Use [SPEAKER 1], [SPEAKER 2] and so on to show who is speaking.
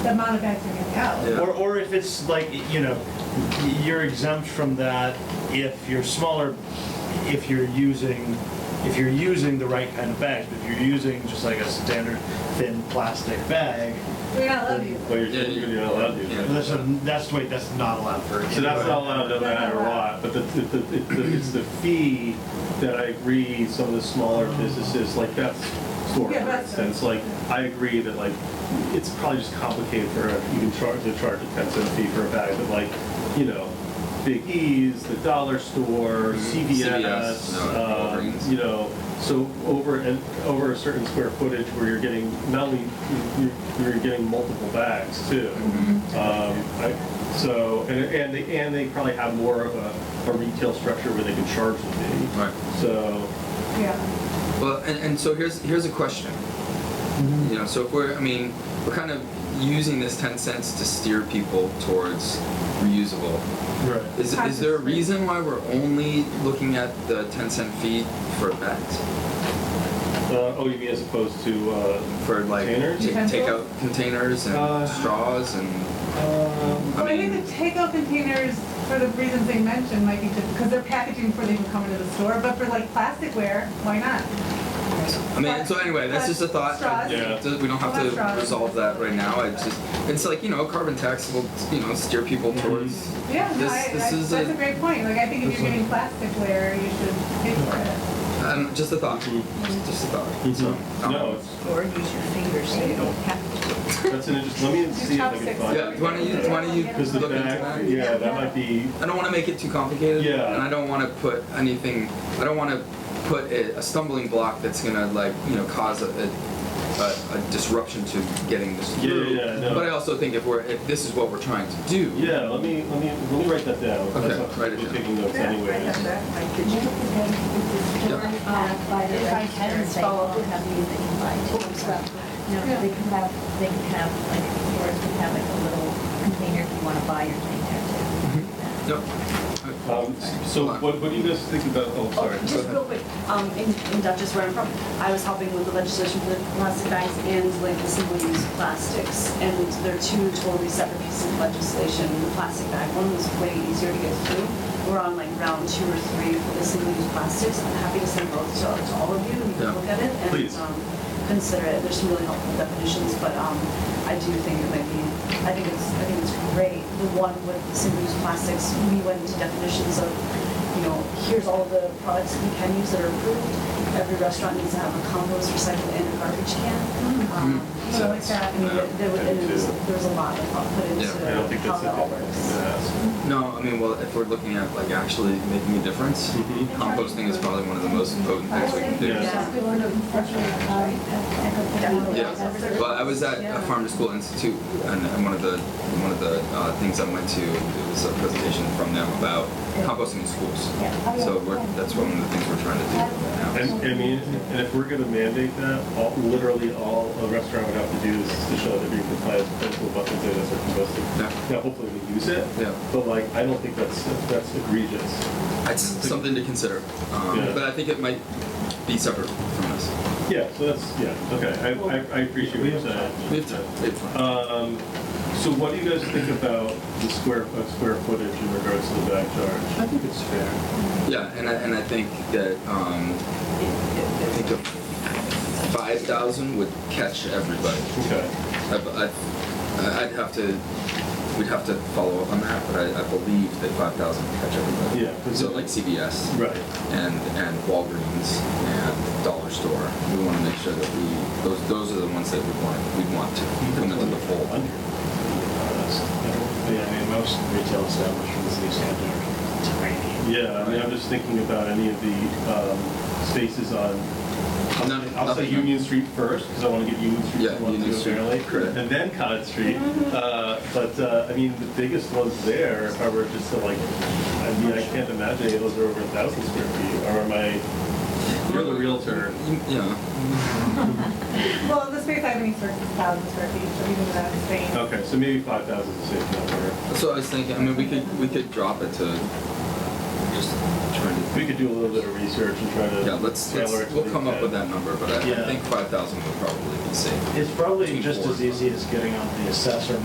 [SPEAKER 1] the amount of bags are gonna go.
[SPEAKER 2] Yeah.
[SPEAKER 3] Or, or if it's like, you know, you're exempt from that if you're smaller, if you're using, if you're using the right kind of bags. But if you're using just like a standard thin plastic bag,
[SPEAKER 1] We're not allowed to use
[SPEAKER 4] Well,
[SPEAKER 1] it.
[SPEAKER 4] you're,
[SPEAKER 2] Yeah,
[SPEAKER 4] you're
[SPEAKER 2] you-
[SPEAKER 4] not allowed to use
[SPEAKER 2] yeah.
[SPEAKER 4] it.
[SPEAKER 3] that's, a- that's, wait, that's not allowed for.
[SPEAKER 4] So that's not allowed, doesn't matter what, but the, the, the- it- the- it's the fee that I agree some of the smaller businesses, like that store, for
[SPEAKER 1] Yeah, that's-
[SPEAKER 4] instance, like, I agree that like, it's probably just complicated for, a- you can charge, to charge a ten cent fee for a bag, but like, you know, Big E's, the dollar
[SPEAKER 2] Mm-hmm.
[SPEAKER 4] store, CVS,
[SPEAKER 2] CVS, no,
[SPEAKER 4] um,
[SPEAKER 2] Walgreens.
[SPEAKER 4] you know, so over, and over a certain square footage where you're getting, not only, you're, you're getting multiple bags too.
[SPEAKER 2] Mm-hmm.
[SPEAKER 4] Um, I- So, and, and they, and they probably have more of a, a retail structure where they can charge the fee.
[SPEAKER 2] Right.
[SPEAKER 4] So,
[SPEAKER 1] Yeah.
[SPEAKER 2] Well, and, and so here's here's a question.
[SPEAKER 4] Mm-hmm.
[SPEAKER 2] You know, so if we're, I mean, we're kind of using this ten cents to steer people towards reusable.
[SPEAKER 3] Right.
[SPEAKER 2] Is, is there a reason why we're only looking at the ten cent fee for bags?
[SPEAKER 4] uh, oh, you mean as opposed to, uh,
[SPEAKER 2] For like
[SPEAKER 4] Containers?
[SPEAKER 2] ta- takeout containers and
[SPEAKER 4] Uh,
[SPEAKER 2] straws and
[SPEAKER 4] um,
[SPEAKER 1] Well, I think the takeout containers, for the reasons they mentioned, might be just, because they're packaging before they even come into the store, but for like plasticware, why not?
[SPEAKER 2] I mean, so anyway, that's just a thought.
[SPEAKER 1] Straws.
[SPEAKER 4] Yeah.
[SPEAKER 2] Th- We don't have
[SPEAKER 1] Less straws.
[SPEAKER 2] to resolve that right now. It's just, it's like, you know, carbon tax will, you know, steer people
[SPEAKER 4] Mm-hmm.
[SPEAKER 2] towards.
[SPEAKER 1] Yeah, no,
[SPEAKER 2] This-
[SPEAKER 1] I,
[SPEAKER 2] this
[SPEAKER 1] I-
[SPEAKER 2] is
[SPEAKER 1] that's
[SPEAKER 2] a-
[SPEAKER 1] a great point, like, I think if
[SPEAKER 3] This
[SPEAKER 1] you're
[SPEAKER 3] is-
[SPEAKER 1] getting plasticware, you should pay for it.
[SPEAKER 2] Um, just a thought.
[SPEAKER 4] Mhm.
[SPEAKER 2] Just, just a thought.
[SPEAKER 4] Mhm.
[SPEAKER 2] So, um,
[SPEAKER 4] No, it's,
[SPEAKER 5] Or use your fingers so you don't have to.
[SPEAKER 4] that's an interesting, let me
[SPEAKER 1] Just
[SPEAKER 4] see if I can
[SPEAKER 1] chopsticks.
[SPEAKER 4] find.
[SPEAKER 2] Yeah, do you wanna you, do you wanna you
[SPEAKER 4] Because the
[SPEAKER 2] look into
[SPEAKER 4] bag,
[SPEAKER 2] that?
[SPEAKER 4] yeah, that might be,
[SPEAKER 2] I don't wanna make it too complicated.
[SPEAKER 4] Yeah.
[SPEAKER 2] And I don't wanna put anything, I don't wanna put a, a stumbling block that's gonna like, you know, cause a, a, a a disruption to getting this
[SPEAKER 4] Yeah,
[SPEAKER 2] through.
[SPEAKER 4] yeah, yeah, no.
[SPEAKER 2] But I also think if we're, if this is what we're trying to do.
[SPEAKER 4] yeah, let me, let me, let me write that down.
[SPEAKER 2] Okay,
[SPEAKER 4] That's not-
[SPEAKER 2] write it
[SPEAKER 4] we're
[SPEAKER 2] down.
[SPEAKER 4] Taking notes anyways.
[SPEAKER 6] If I can follow up, have you that you like to as well. You know, they can have, they can have, like, or they can have like a little container if you want to buy your thing there too.
[SPEAKER 2] Mm-hmm. Yep.
[SPEAKER 4] Um, so what, what do you guys think about, oh,
[SPEAKER 7] Oh,
[SPEAKER 4] sorry.
[SPEAKER 7] just real quick, um, in, in Dutchess where I'm from, I was helping with the legislation for the plastic bags and like the single-use plastics. And they're two totally separate pieces of legislation. The plastic bag one was way easier to get through. We're on like round two or three for the single-use plastics. I'm happy to send both to, to all of you and you
[SPEAKER 2] Yeah.
[SPEAKER 7] can look at it and,
[SPEAKER 4] Please.
[SPEAKER 7] um, consider it. There's some really helpful definitions, but, um, I do think it might be, I think it's, I think it's great. The one with single-use plastics, we went into definitions of you know, here's all the products we can use that are approved. Every restaurant needs to have a compost, recycle, and a garbage can.
[SPEAKER 2] Mm-hmm.
[SPEAKER 7] Um,
[SPEAKER 1] Mm.
[SPEAKER 7] So
[SPEAKER 1] I like that.
[SPEAKER 7] I mean, there- there was, and there was, there was a lot of thought put into
[SPEAKER 2] Yeah,
[SPEAKER 4] I don't think
[SPEAKER 7] how
[SPEAKER 4] that's a
[SPEAKER 7] that all
[SPEAKER 4] good thing
[SPEAKER 7] works.
[SPEAKER 4] to ask.
[SPEAKER 2] No, I mean, well, if we're looking at like actually making a difference,
[SPEAKER 4] Mhm.
[SPEAKER 2] composting is probably one of the most potent things we can do.
[SPEAKER 4] Yeah.
[SPEAKER 2] Yeah. Well, I was at a farm to school institute, and, and one of the one of the uh, things I went to it was a presentation from them about composting in schools. So we're, that's one of the things we're trying to do right
[SPEAKER 4] And,
[SPEAKER 2] now.
[SPEAKER 4] I mean, and if we're gonna mandate that, all, literally all a restaurant would have to do is to show that you comply with principal buckets and as a
[SPEAKER 2] Yeah.
[SPEAKER 4] composting. Now, hopefully we use it.
[SPEAKER 2] Yeah.
[SPEAKER 4] But like, I don't think that's, that's egregious.
[SPEAKER 2] It's something to consider, um,
[SPEAKER 4] Yeah.
[SPEAKER 2] but I think it might be separate from this.
[SPEAKER 4] Yeah, so that's, yeah, okay, I, I, I appreciate what you're saying.
[SPEAKER 2] We have to. we have time.
[SPEAKER 4] Um, so what do you guys think about the square, uh, square footage in regards to the back charge? I think it's fair.
[SPEAKER 2] Yeah, and I, and I think that um, I think the five thousand would catch everybody.
[SPEAKER 4] Okay.
[SPEAKER 2] I, I, I'd have to, we'd have to follow up on that, but I, I believe that five thousand would catch everybody.
[SPEAKER 4] Yeah, 'cause
[SPEAKER 2] So
[SPEAKER 4] it-
[SPEAKER 2] like CVS.
[SPEAKER 4] Right.
[SPEAKER 2] And, and Walgreens and Dollar Store, we wanna make sure that we, those, those are the ones that we want, we want to come into the fold.
[SPEAKER 8] Yeah, I mean, most retail establishments these days are tiny.
[SPEAKER 4] Yeah, I mean, I'm just thinking about any of the um, spaces on, I'll
[SPEAKER 2] No,
[SPEAKER 4] say- I'll say
[SPEAKER 2] nothing.
[SPEAKER 4] Union Street first, because I want to get Union Street
[SPEAKER 2] Yeah,
[SPEAKER 4] to one,
[SPEAKER 2] Union
[SPEAKER 4] too,
[SPEAKER 2] Street,
[SPEAKER 4] apparently.
[SPEAKER 2] correct.
[SPEAKER 4] And then Cottage Street. Uh, But, uh, I mean, the biggest ones there are were just to, like, I mean, I can't imagine any of those are over a thousand square feet, or am I, you're the realtor.
[SPEAKER 2] Yeah,
[SPEAKER 1] Well, the space I have in East York is a thousand square feet, so even without the space.
[SPEAKER 4] Okay, so maybe five thousand is a safe number.
[SPEAKER 2] so I was thinking, I mean, we could, we could drop it to just trying to.
[SPEAKER 4] We could do a little bit of research and try to.
[SPEAKER 2] Yeah, let's,
[SPEAKER 4] tailor
[SPEAKER 2] let's,
[SPEAKER 4] it to
[SPEAKER 2] we'll
[SPEAKER 4] the
[SPEAKER 2] come up
[SPEAKER 4] intent.
[SPEAKER 2] with that number, but I I
[SPEAKER 3] Yeah.
[SPEAKER 2] think five thousand would probably be safe.
[SPEAKER 3] It's probably
[SPEAKER 2] Between
[SPEAKER 3] just
[SPEAKER 2] four
[SPEAKER 3] as
[SPEAKER 2] and five.
[SPEAKER 3] easy as getting on the assessor